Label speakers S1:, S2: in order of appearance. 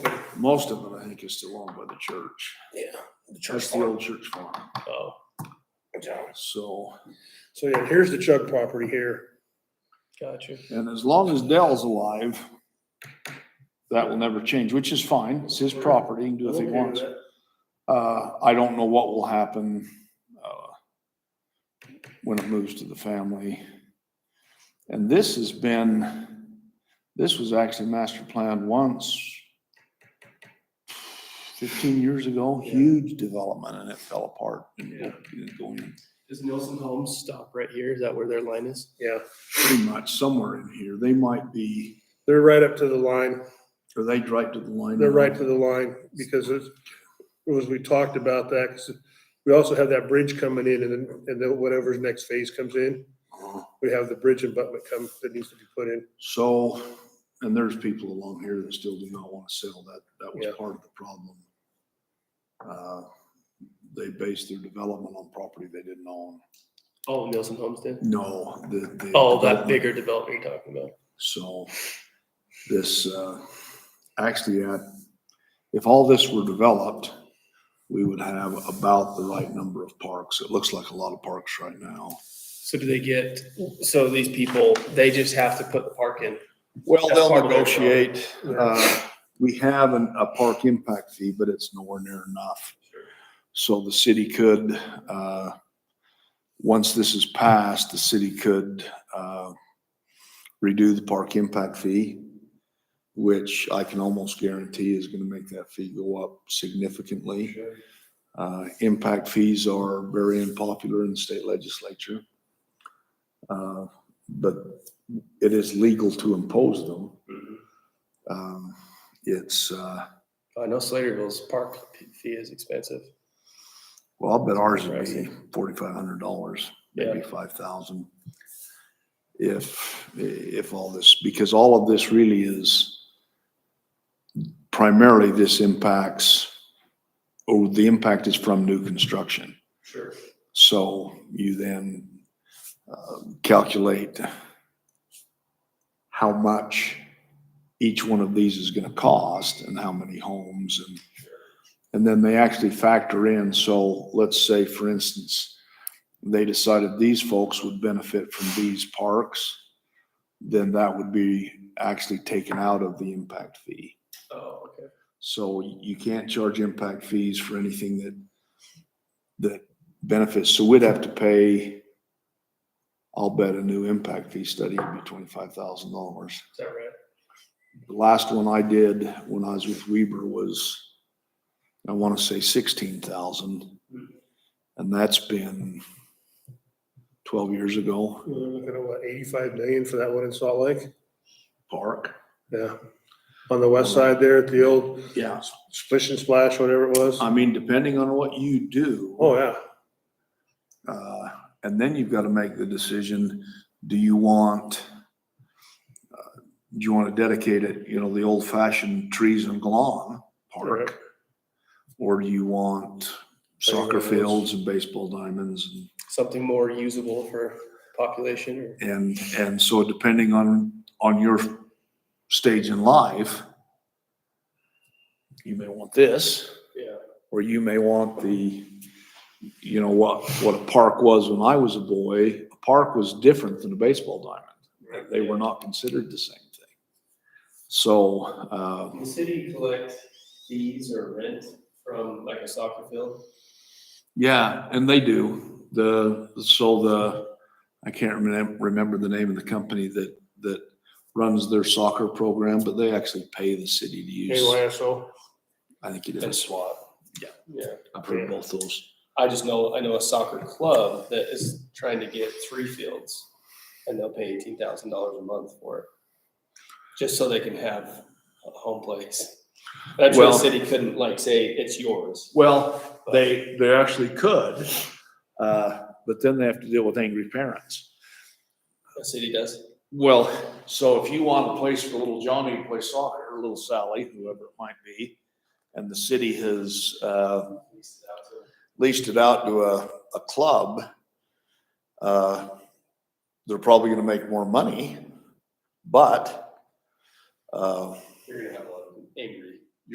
S1: Most of it, I think, is still owned by the church.
S2: Yeah. The church
S1: That's the
S2: farm.
S1: old church farm.
S3: Oh,
S2: Yeah.
S1: So,
S2: So yeah, here's the Chug property here.
S3: gotcha.
S1: and as long as Dell's alive, that will never change, which is fine. It's his property. He can do what he
S2: Okay with
S1: wants.
S2: that.
S1: Uh, I don't know what will happen, uh, when it moves to the family. And this has been, this was actually master planned once fifteen years ago,
S2: Yeah.
S1: huge development and it fell apart. and
S3: Yeah.
S1: didn't go in.
S3: Does Nielsen Homes stop right here? Is that where their line is?
S2: Yeah,
S1: Pretty much somewhere in here. They might be,
S2: they're right up to the line.
S1: or they right to the line.
S2: They're
S1: now.
S2: right to the line because it's, as we talked about that, 'cause we also have that bridge coming in and then, and then whatever's next phase comes in,
S1: Uh-huh.
S2: we have the bridge abutment come, that needs to be put in.
S1: So, and there's people along here that still do not want to sell that. That was
S2: Yeah.
S1: part of the problem. Uh, They based their development on property they didn't own.
S3: Oh, Nielsen Homes did?
S1: No, the, the.
S3: Oh,
S1: development-
S3: that bigger development you're talking about.
S1: So this, uh, actually, uh, if all this were developed, we would have about the right number of parks. It looks like a lot of parks right now.
S3: So do they get, so these people, they just have to put the park in?
S1: Well,
S3: That's
S1: they'll
S3: part of their
S1: negotiate. Uh, We have an, a park impact fee, but it's nowhere near enough. So the city could, uh, once this is passed, the city could, uh, redo the park impact fee, which I can almost guarantee is gonna make that fee go up significantly. Uh, impact fees are very unpopular in the state legislature. Uh, But it is legal to impose them. Um, it's, uh,
S3: I know Slaterville's park fee is expensive.
S1: well, I'll bet ours would be forty-five hundred dollars, maybe
S3: Yeah.
S1: five thousand. If, if all this, because all of this really is primarily this impacts, or the impact is from new construction.
S3: Sure.
S1: So you then uh, calculate how much each one of these is going to cost and how many homes and, and then they actually factor in. So let's say, for instance, they decided these folks would benefit from these parks, then that would be actually taken out of the impact fee.
S3: Oh, okay.
S1: So you can't charge impact fees for anything that, that benefits. So we'd have to pay, I'll bet a new impact fee study would be twenty-five thousand dollars.
S3: Is that right?
S1: The last one I did when I was with Weber was, I want to say sixteen thousand. And that's been twelve years ago.
S2: We're looking at what, eighty-five million for that one in Salt Lake?
S1: Park.
S2: Yeah. On the west side there at the old
S1: Yeah.
S2: splish and splash, whatever it was.
S1: I mean, depending on what you do.
S2: Oh, yeah.
S1: Uh, And then you've got to make the decision, do you want, uh, do you want to dedicate it, you know, the old fashioned trees and lawn
S2: Right.
S1: park? Or do you want soccer fields and baseball diamonds? and-
S3: Something more usable for population or?
S1: And, and so depending on, on your stage in life, you may want this.
S3: Yeah.
S1: or you may want the, you know, what, what a park was when I was a boy. A park was different than a baseball diamond. They were not considered the same thing. So, uh,
S3: Um, The city collect fees or rent from like a soccer field?
S1: yeah, and they do. The, so the, I can't remember, remember the name of the company that, that runs their soccer program, but they actually pay the city to use.
S2: AYSO.
S1: I think it is.
S3: SWAT. Yeah.
S1: I've heard both those.
S3: I just know, I know a soccer club that is trying to get three fields and they'll pay eighteen thousand dollars a month for it. Just so they can have a home place. That's why the
S1: Well-
S3: city couldn't like say, it's yours.
S1: Well, they, they actually could, uh, but then they have to deal with angry parents.
S3: The city does.
S1: Well, so if you want a place for little Johnny to play soccer, or little Sally, whoever it might be, and the city has, uh,
S3: leases it out to them.
S1: leased it out to a, a club, uh, they're probably gonna make more money, but, uh,
S3: You're gonna have a lot of angry